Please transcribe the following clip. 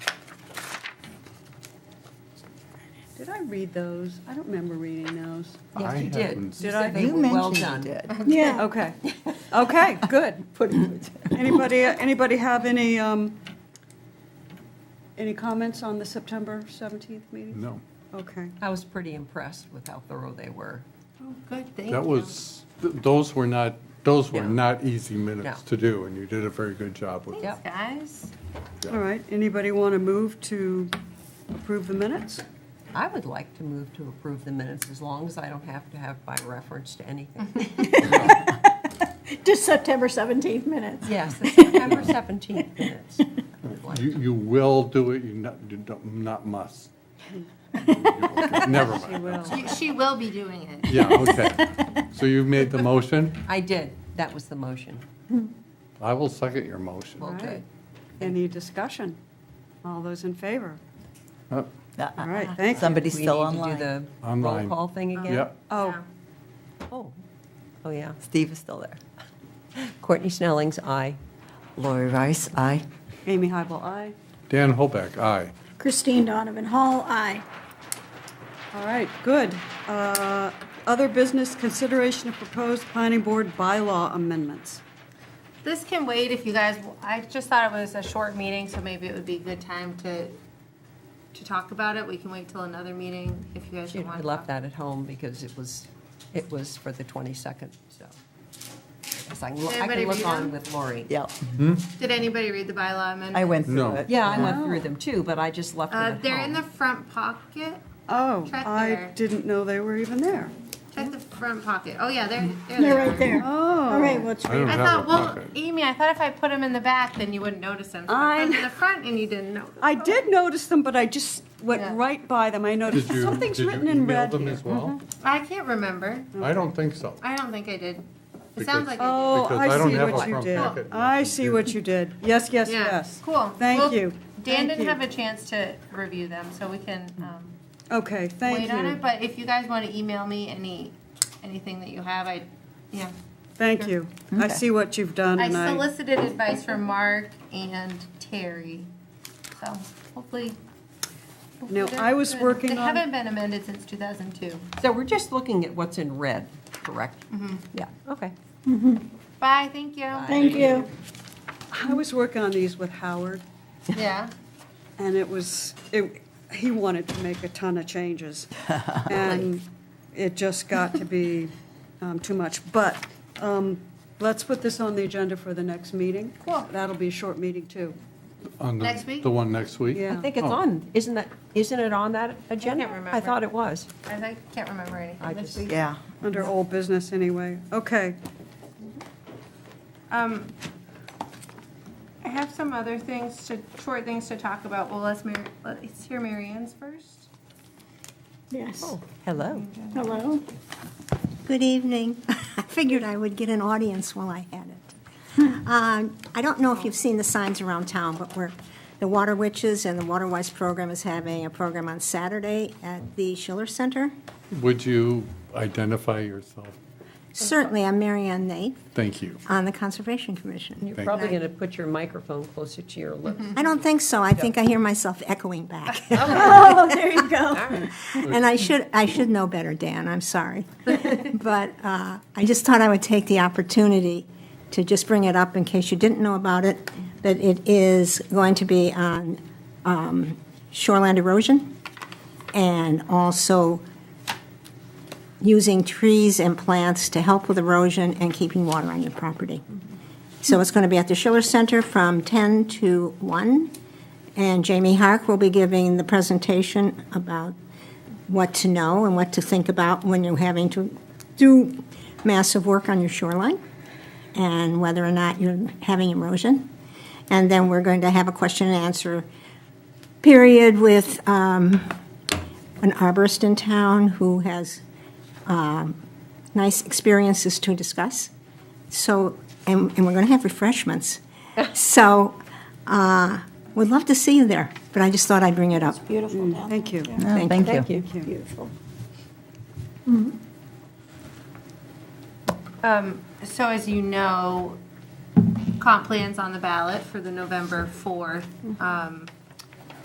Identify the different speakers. Speaker 1: Did I read those? I don't remember reading those.
Speaker 2: Yes,
Speaker 3: I
Speaker 2: you did.
Speaker 3: haven't-
Speaker 2: You
Speaker 1: Did
Speaker 2: said
Speaker 1: I?
Speaker 2: they
Speaker 4: You
Speaker 2: were well
Speaker 4: mentioned you
Speaker 2: done.
Speaker 4: did.
Speaker 1: Yeah. Okay. Okay, good.
Speaker 4: Put it-
Speaker 1: Anybody, anybody have any, um, any comments on the September 17th meeting?
Speaker 3: No,
Speaker 1: Okay.
Speaker 2: I was pretty impressed with how thorough they were.
Speaker 4: Oh, Good, thank you.
Speaker 3: that was, th- those were not, those were
Speaker 2: No.
Speaker 3: not easy minutes
Speaker 2: No.
Speaker 3: to do, and you did a very good job with them.
Speaker 2: Yep.
Speaker 4: Guys,
Speaker 1: All right, anybody want to move to approve the minutes?
Speaker 2: I would like to move to approve the minutes as long as I don't have to have by reference to anything.
Speaker 5: Just September 17th minutes.
Speaker 2: Yes, the September 17th minutes. I would like
Speaker 3: You,
Speaker 2: to.
Speaker 3: you will do it, you not, you don't, not must. Never mind.
Speaker 1: Well,
Speaker 6: She- She will be doing it.
Speaker 3: Yeah, okay. So you've made the motion?
Speaker 2: I did. That was the motion.
Speaker 3: I will second your motion.
Speaker 2: Well,
Speaker 1: right.
Speaker 2: good.
Speaker 1: Any discussion? All those in favor?
Speaker 3: Uh,
Speaker 4: Uh-uh.
Speaker 1: All right, thank you.
Speaker 4: Somebody's
Speaker 2: We
Speaker 4: still
Speaker 2: need to do
Speaker 4: online.
Speaker 2: the
Speaker 3: Online.
Speaker 2: Roll call thing again?
Speaker 3: Yep,
Speaker 1: Oh,
Speaker 2: Oh, oh, yeah.
Speaker 4: Steve is still there.
Speaker 2: Courtney Snelling's aye.
Speaker 4: Lori Rice, aye.
Speaker 1: Amy Hybel, aye.
Speaker 3: Dan Holbeck, aye.
Speaker 5: Christine Donovan Hall, aye.
Speaker 1: All right, good. Uh, Other business consideration of proposed planning board bylaw amendments.
Speaker 6: This can wait if you guys, I just thought it was a short meeting, so maybe it would be a good time to, to talk about it. We can wait till another meeting if you guys
Speaker 2: She
Speaker 6: don't want
Speaker 2: I
Speaker 6: to.
Speaker 2: left that at home because it was, it was for the 22nd, so. Yes, I can look- I
Speaker 6: Everybody
Speaker 2: can look
Speaker 6: read
Speaker 2: on
Speaker 6: them?
Speaker 2: with Lori.
Speaker 4: Yep,
Speaker 6: Did anybody read the bylaw amendment?
Speaker 4: I went
Speaker 3: No.
Speaker 4: through it.
Speaker 2: Yeah, I went through them too, but I just left them at
Speaker 6: Oh. Uh,
Speaker 2: home.
Speaker 6: they're in the front pocket.
Speaker 1: Oh,
Speaker 6: Check
Speaker 1: I
Speaker 6: there.
Speaker 1: didn't know they were even there.
Speaker 6: Check the front pocket. Oh, yeah, they're, there
Speaker 5: They're
Speaker 6: they
Speaker 5: right
Speaker 6: are.
Speaker 5: there.
Speaker 1: Oh.
Speaker 5: All right, let's
Speaker 3: I don't
Speaker 5: read.
Speaker 6: I
Speaker 3: have a
Speaker 6: thought, well,
Speaker 3: pocket.
Speaker 6: Amy, I thought if I put them in the back, then you wouldn't notice them. So
Speaker 1: I
Speaker 6: I put 'em
Speaker 1: know.
Speaker 6: in the front and you didn't notice.
Speaker 1: I did notice them, but I just went
Speaker 6: Yeah.
Speaker 1: right by them. I noticed
Speaker 3: Did you, did
Speaker 1: something's
Speaker 3: you
Speaker 1: written in
Speaker 3: email
Speaker 1: red
Speaker 3: them
Speaker 1: here.
Speaker 3: as well?
Speaker 6: I can't remember.
Speaker 3: I don't think so.
Speaker 6: I don't think I did. It
Speaker 3: Because-
Speaker 6: sounds like I did.
Speaker 1: Oh,
Speaker 3: Because I
Speaker 1: I
Speaker 3: don't
Speaker 1: see
Speaker 3: have
Speaker 1: what
Speaker 3: a
Speaker 1: you
Speaker 3: front packet
Speaker 1: did.
Speaker 3: in my
Speaker 1: I see what you did. Yes, yes,
Speaker 6: Yeah.
Speaker 1: yes.
Speaker 6: Cool.
Speaker 1: Thank
Speaker 6: Well,
Speaker 1: you.
Speaker 6: Dan
Speaker 1: Thank
Speaker 6: didn't
Speaker 1: you.
Speaker 6: have a chance to review them, so we can um,
Speaker 1: Okay, thank
Speaker 6: wait on it.
Speaker 1: you.
Speaker 6: But if you guys want to email me any, anything that you have, I, yeah.
Speaker 1: Thank you. I
Speaker 4: Okay.
Speaker 1: see what you've done
Speaker 6: I
Speaker 1: and I,
Speaker 6: solicited advice from Mark and Terry, so hopefully. hopefully
Speaker 1: Now,
Speaker 6: they're
Speaker 1: I was
Speaker 6: good.
Speaker 1: working
Speaker 6: They
Speaker 1: on-
Speaker 6: haven't been amended since 2002.
Speaker 2: So we're just looking at what's in red, correct?
Speaker 6: Mm-hmm.
Speaker 2: Yeah, okay.
Speaker 6: Bye, thank you.
Speaker 5: Thank you.
Speaker 1: I was working on these with Howard
Speaker 6: Yeah.
Speaker 1: and it was, it, he wanted to make a ton of changes. And it just got to be um, too much. But um, let's put this on the agenda for the next meeting.
Speaker 6: Cool.
Speaker 1: That'll be a short meeting too.
Speaker 3: On the-
Speaker 6: Next week?
Speaker 3: The one next week?
Speaker 1: Yeah.
Speaker 2: I think it's
Speaker 3: Oh.
Speaker 2: on, isn't that, isn't it on that agenda?
Speaker 6: remember.
Speaker 2: thought it was.
Speaker 6: I I can't remember
Speaker 2: I
Speaker 6: anything this
Speaker 2: just-
Speaker 6: week.
Speaker 4: Yeah.
Speaker 1: Under old business, anyway. Okay.
Speaker 6: Um, I have some other things to, short things to talk about. Well, let's, Mar- let's hear Mary Ann's first.
Speaker 5: Yes.
Speaker 2: Oh, Hello.
Speaker 6: Mm-hmm.
Speaker 5: Hello. Good evening. I figured I would get an audience while I had it. Um, I don't know if you've seen the signs around town, but we're, the Water Witches and the Water Wise program is having a program on Saturday at the Schiller Center.
Speaker 3: Would you identify yourself?
Speaker 5: Certainly, I'm Mary Ann Nate
Speaker 3: Thank you.
Speaker 5: on the Conservation Commission.
Speaker 2: You're probably going to put your microphone closer to your lips.
Speaker 5: I don't think so. I think I hear myself echoing back. Oh, there you go. And I should, I should know better, Dan, I'm sorry. But uh, I just thought I would take the opportunity to just bring it up in case you didn't know about it, that it is going to be on um, shoreline erosion and also using trees and plants to help with erosion and keeping water on your property. So it's going to be at the Schiller Center from 10 to 1. And Jamie Hark will be giving the presentation about what to know and what to think about when you're having to do massive work on your shoreline and whether or not you're having erosion. And then we're going to have a question and answer period with um, an arborist in town who has um, nice experiences to discuss. So, and, and we're going to have refreshments. So, uh, we'd love to see you there, but I just thought I'd bring it up.
Speaker 7: Beautiful down there.
Speaker 1: Thank you.
Speaker 4: Thank you.
Speaker 1: Thank you.
Speaker 7: Beautiful.
Speaker 6: Um, so as you know, comp plan's on the ballot for the November 4th, um,